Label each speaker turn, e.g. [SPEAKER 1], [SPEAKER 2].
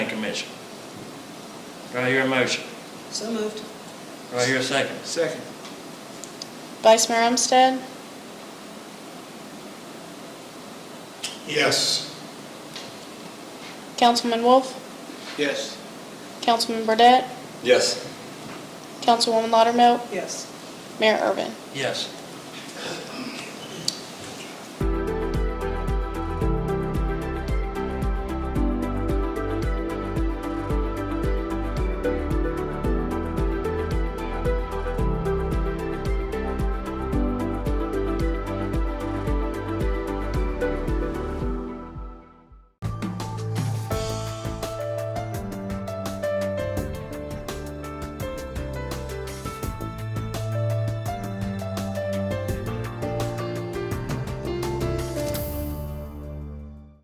[SPEAKER 1] commission. Do I hear a motion?
[SPEAKER 2] So moved.
[SPEAKER 1] Do I hear a second?
[SPEAKER 3] Second.
[SPEAKER 4] Vice Mayor Umstead,
[SPEAKER 3] Yes.
[SPEAKER 4] Councilman Wolf,
[SPEAKER 3] Yes.
[SPEAKER 4] Councilman Burdette,
[SPEAKER 5] Yes.
[SPEAKER 4] Councilwoman Laudermilk,
[SPEAKER 2] Yes.
[SPEAKER 4] Mayor Irvin.
[SPEAKER 1] Yes.